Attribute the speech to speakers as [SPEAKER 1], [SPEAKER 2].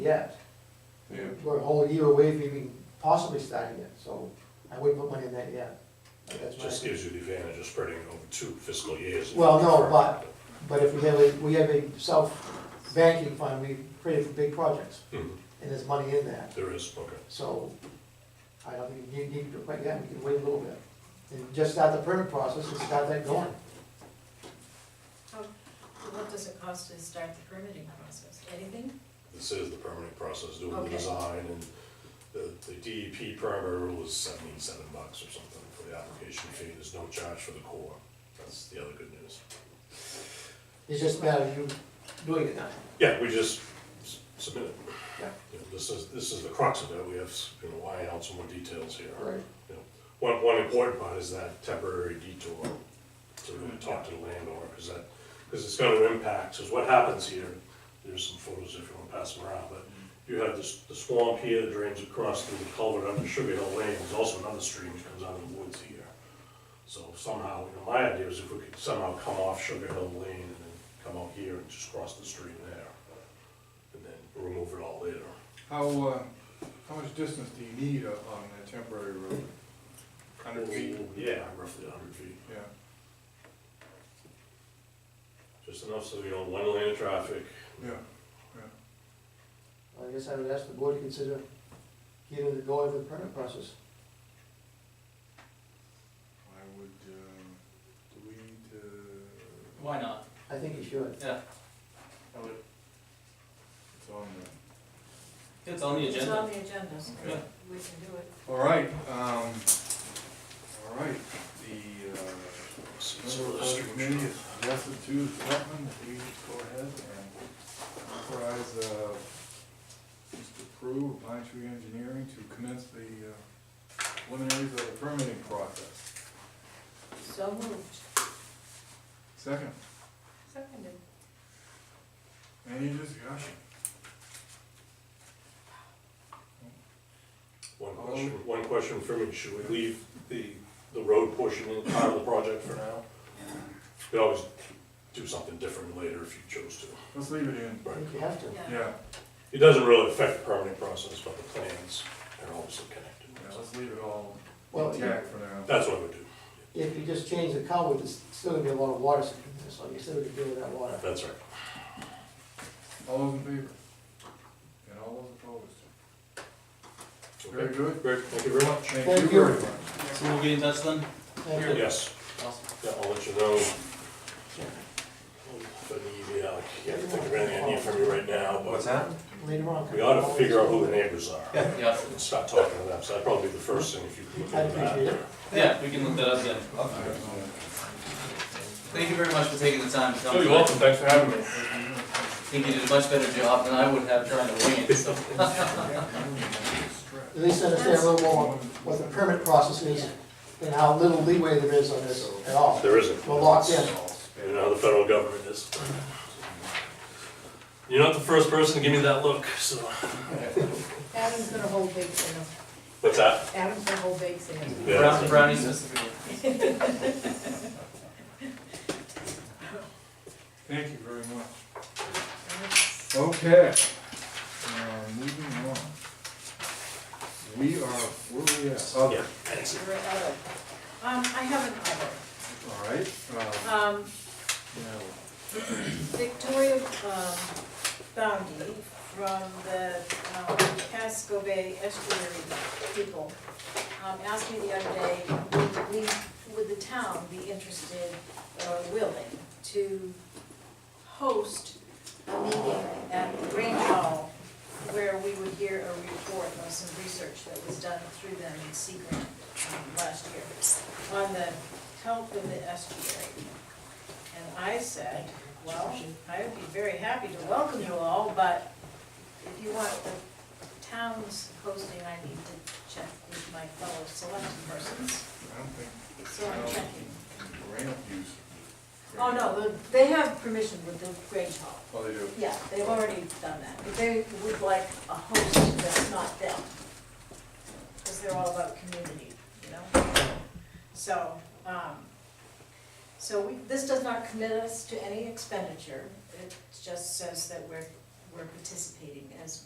[SPEAKER 1] yet.
[SPEAKER 2] Yeah,
[SPEAKER 1] We're a whole year away from even possibly starting it, so I wouldn't put money in that yet. But that's my
[SPEAKER 3] Just
[SPEAKER 1] opinion.
[SPEAKER 3] gives you the advantage of spreading it over two fiscal years.
[SPEAKER 1] Well, no, but- But if we have a, we have a self-banking fund, we created for big projects,
[SPEAKER 3] Mhm,
[SPEAKER 1] and there's money in that.
[SPEAKER 3] There is, okay.
[SPEAKER 1] So I don't think you need to, but yeah, we can wait a little bit. And just start the permit process and start that going.
[SPEAKER 4] What does it cost to start the permitting process? Anything?
[SPEAKER 3] This is the permitting process, doing the
[SPEAKER 4] Okay.
[SPEAKER 3] design and the, the DEP primary rule is seventy-seven bucks or something for the application fee. There's no charge for the core. That's the other good news.
[SPEAKER 1] It's just a matter of you doing it now.
[SPEAKER 3] Yeah, we just s- submit it.
[SPEAKER 1] Yeah.
[SPEAKER 3] You know, This is, this is the crux of it. We have, s- you know, why out some more details here.
[SPEAKER 1] All right.
[SPEAKER 3] You know, One, one important part is that temporary detour to
[SPEAKER 5] Mm-hmm.
[SPEAKER 3] really talk to the landowner, because that, because it's gonna impact, because what happens here, there's some photos if you wanna pass them around, but
[SPEAKER 5] Mm-hmm.
[SPEAKER 3] you have this, the swamp here that drains across through the culvert under Sugar Hill Lane, there's also another stream that comes out of the woods here. So somehow, you know, my idea is if we could somehow come off Sugar Hill Lane and then come out here and just cross the stream there, and then remove it all later.
[SPEAKER 5] How, uh, how much distance do you need on that temporary road? Hundred feet?
[SPEAKER 3] Yeah, roughly hundred feet.
[SPEAKER 5] Yeah,
[SPEAKER 3] Just enough so we don't one lane of traffic.
[SPEAKER 5] yeah.
[SPEAKER 1] I guess I would ask the board to consider getting the going for the permit process.
[SPEAKER 5] I would, um, do we need to,
[SPEAKER 6] Why not?
[SPEAKER 1] I think you should.
[SPEAKER 6] I would-
[SPEAKER 5] it's on the,
[SPEAKER 6] It's on the
[SPEAKER 4] It's on
[SPEAKER 6] agenda.
[SPEAKER 4] the agenda, so
[SPEAKER 5] Yeah.
[SPEAKER 4] we can do it.
[SPEAKER 5] all right, um, all right, the, uh, member of the committee is suggested to Selectmen, that we go ahead and authorize, uh, Mr. Prue of Pine Tree Engineering to commence the uh, preliminaries of the permitting process.
[SPEAKER 4] So moved.
[SPEAKER 5] Second,
[SPEAKER 4] Seconded.
[SPEAKER 5] any discussion?
[SPEAKER 3] One question, one question for me, should we leave the, the road portion in part of the project for now? We always do something different later if you chose to.
[SPEAKER 5] Let's leave it in.
[SPEAKER 1] I think you have to.
[SPEAKER 4] Yeah.
[SPEAKER 5] Yeah,
[SPEAKER 3] It doesn't really affect the permitting process, but the plans are obviously
[SPEAKER 5] yeah,
[SPEAKER 3] connected.
[SPEAKER 5] let's leave it all
[SPEAKER 1] Well,
[SPEAKER 5] intact for now.
[SPEAKER 3] That's what we do,
[SPEAKER 1] if you just change the culvert, there's still gonna be a lot of water sitting there, so you still gonna deal with that water.
[SPEAKER 3] that's right.
[SPEAKER 5] All those in favor? And all those opposed? Very
[SPEAKER 3] Okay.
[SPEAKER 5] good.
[SPEAKER 3] Great, thank you very much.
[SPEAKER 5] Thank you
[SPEAKER 1] Thank
[SPEAKER 5] very
[SPEAKER 1] you.
[SPEAKER 5] much.
[SPEAKER 6] So we'll be in touch then?
[SPEAKER 1] Thank you.
[SPEAKER 3] Yes,
[SPEAKER 6] Awesome.
[SPEAKER 3] yeah, I'll let you know. If I need, uh, I can't think of anything I need from you right now, but
[SPEAKER 2] that?
[SPEAKER 1] Later on.
[SPEAKER 3] we ought to figure out who the neighbors are.
[SPEAKER 6] Yeah,
[SPEAKER 3] and start talking to them, so that'd probably be the first thing if you could look
[SPEAKER 1] I
[SPEAKER 3] into that.
[SPEAKER 1] appreciate it.
[SPEAKER 6] yeah, we can look that up then. Thank you very much for taking the time to come.
[SPEAKER 2] You're welcome, thanks for having me.
[SPEAKER 6] I think you did a much better job than I would have trying to wing it, so.
[SPEAKER 1] At least understand a little more what the permit process is and how little leeway there is on this at all.
[SPEAKER 3] There isn't.
[SPEAKER 1] We're locked in.
[SPEAKER 3] You know how the federal government is. You're not the first person to give me that look, so.
[SPEAKER 4] Adam's gonna hold big sale.
[SPEAKER 3] What's that?
[SPEAKER 4] Adam's gonna hold big sale.
[SPEAKER 6] Brown- Brownies specifically.
[SPEAKER 5] Thank you very much.
[SPEAKER 4] That's-
[SPEAKER 5] Okay, uh, moving on. We are, where are we at? Oh,
[SPEAKER 3] Yeah, thanks.
[SPEAKER 4] you're at other. Um, I have an other.
[SPEAKER 5] All right, uh,
[SPEAKER 4] Um,
[SPEAKER 5] now,
[SPEAKER 4] Victoria um, Boundy from the um, Casco Bay Estuary people um, asked me the other day, would we, would the town be interested or willing to host a meeting at the Green Hall where we would hear a report of some research that was done through them in Sea Grant um, last year on the health of the estuary. And I said, well, I would be very happy to welcome you all, but if you want the town's hosting, I need to check with my fellow select persons,
[SPEAKER 5] I don't think
[SPEAKER 4] so I'm checking.
[SPEAKER 5] grant use.
[SPEAKER 4] Oh, no, the- they have permission with the Grange Hall.
[SPEAKER 5] Oh, they do.
[SPEAKER 4] Yeah, they've already done that. But They would like a host that's not them, because they're all about community, you know? So, um, so we, this does not commit us to any expenditure. It just says that we're, we're participating as